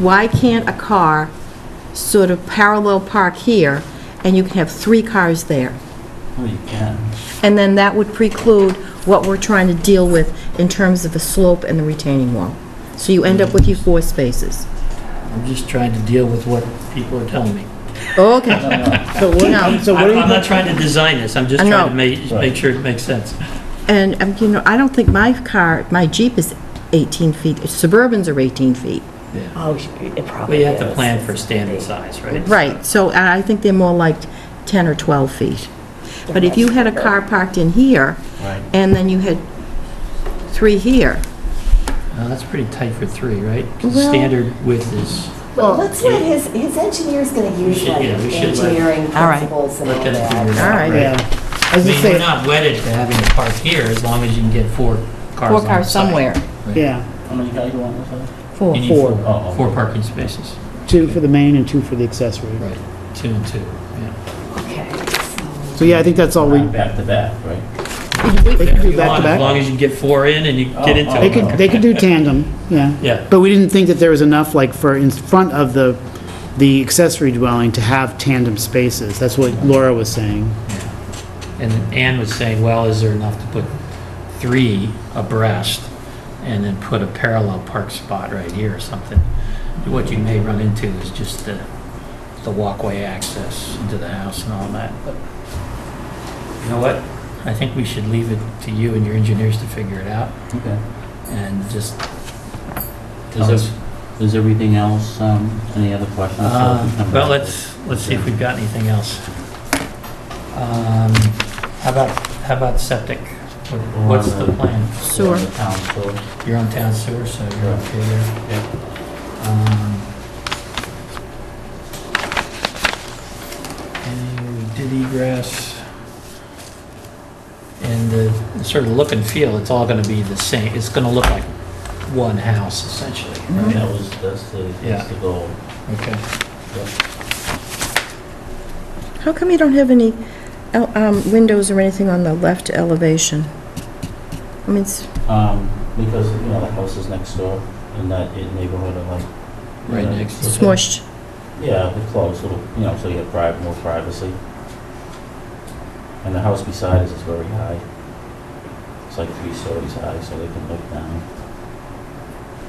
why can't a car sort of parallel park here, and you can have three cars there? Well, you can. And then that would preclude what we're trying to deal with in terms of the slope and the retaining wall. So you end up with your four spaces. I'm just trying to deal with what people are telling me. Okay, So No. what, so what I'm I'm are not you, trying to design this, I'm just I trying know. to make, Right. make sure it makes sense. and, um, you know, I don't think my car, my Jeep is 18 feet, Suburbans are 18 feet. Oh, sh- it probably Well, you have to is. plan for standard size, right? Right, so and I think they're more like 10 or 12 feet. But if you had a car parked in here, Right. and then you had three here, Uh, That's pretty tight for three, right? 'Cause Well- Standard width is, Well, let's let his, his engineer's gonna use should- like yeah, we should let- engineering All right. principles and all let that that. figure it All out, right. right? yeah, I as you mean, we're say, not wedded to having it parked here, as long as you can get four cars four on cars the side. somewhere. yeah, How many guys you want with that? Four. You need Four. Oh, Four parking spaces, two for the main and two for the accessory. right, two and two, yeah. So yeah, I think that's all we, Not back to back, right? they could do You want, back to As back. long as you get four in and you get Oh, into oh, it. They could, they could do tandem, yeah. Yeah. But we didn't think that there was enough, like, for in front of the, the accessory dwelling to have tandem spaces. That's what Laura was saying. And Ann was saying, well, is there enough to put three abreast and then put a parallel park spot right here or something? What you may run into is just the, the walkway access into the house and all that, but you know what? I think we should leave it to you and your engineers to figure it out Okay. and just. Is there- is everything else, um, any other questions? Uh, Well, let's, let's see if we've got anything else. Um, How about, how about septic? What- What's the plan? Sewer. The town sewer. You're on town sewer, so you're okay there. Yep. Um, And we did egress. And the sort of look and feel, it's all gonna be the same, it's gonna look like one house essentially, Right, right? That was, that's the, Yeah. that's the goal. Okay. How come you don't have any el- um, windows or anything on the left elevation? I mean, it's, Um, because, you know, the house is next door in that neighborhood of like. Right Yeah. next to it's the- smushed. Yeah, the close, little, you know, so you have pri more privacy. And the house beside us is very high. It's like three stories high, so they can look down.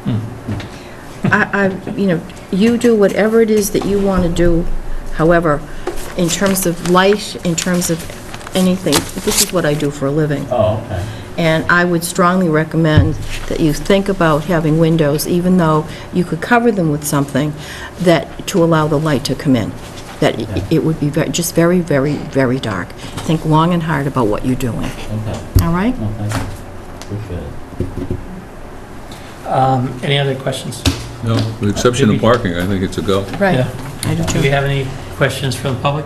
Hmm. I, I, you know, you do whatever it is that you want to do, however, in terms of light, in terms of anything, this is what I do for a living. Oh, okay. And I would strongly recommend that you think about having windows, even though you could cover them with something, that, to allow the light to come in. That i- Yeah. it would be ve- just very, very, very dark. Think long and hard about what you're doing, Okay, all right? no, thank you. Appreciate it. Um, Any other questions? No, with the exception of parking, I think it's a go. Right. Yeah. I do Do we too. have any questions from the public?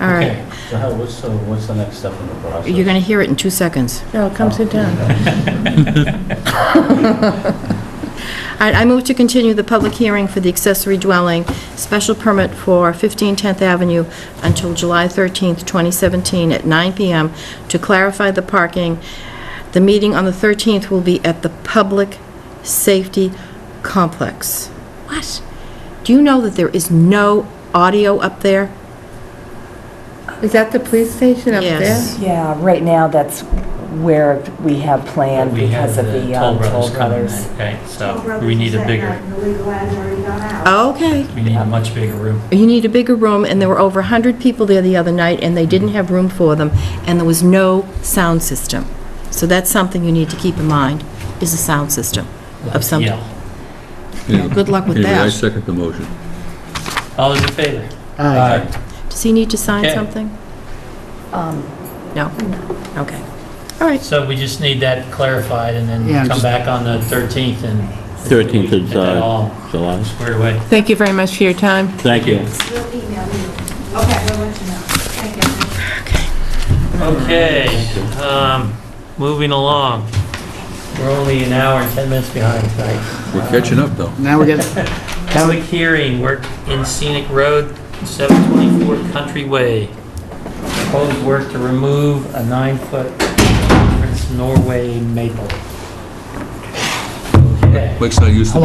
All right. Okay. So how, what's, so what's the next step in the process? You're going to hear it in two seconds. No, come sit down. I I move to continue the public hearing for the accessory dwelling special permit for 15 10th Avenue until July 13th, 2017, at 9 p.m. to clarify the parking. The meeting on the 13th will be at the Public Safety Complex. What? Do you know that there is no audio up there? Is that the police station up there? Yes. Yeah, right now, that's where we have planned We have because of the the Toll um, Brothers Toll coming, Brothers. in, okay, so we need a bigger, Okay. we need a much bigger room. You need a bigger room, and there were over 100 people there the other night, and they didn't have room for them, and there was no sound system. So that's something you need to keep in mind, is a sound system of some... Yeah. Yeah. Good luck with Anyway, I that. second the motion. All those in favor? Aye. Does he need to sign Okay. something? Um, No? Okay. All right. So we just need that clarified and Yeah, then come just- back on the 13th and. 13th of, Get that uh, all July. squared away. Thank you very much for your time. Thank you. Okay, um, moving along. We're only an hour and 10 minutes behind tonight. We're catching up, though. Now we're getting, now Public we- hearing, we're in Scenic Road, 724 Country Way. Proposed work to remove a nine-foot Prince Norway maple. Okay. Mike's not used to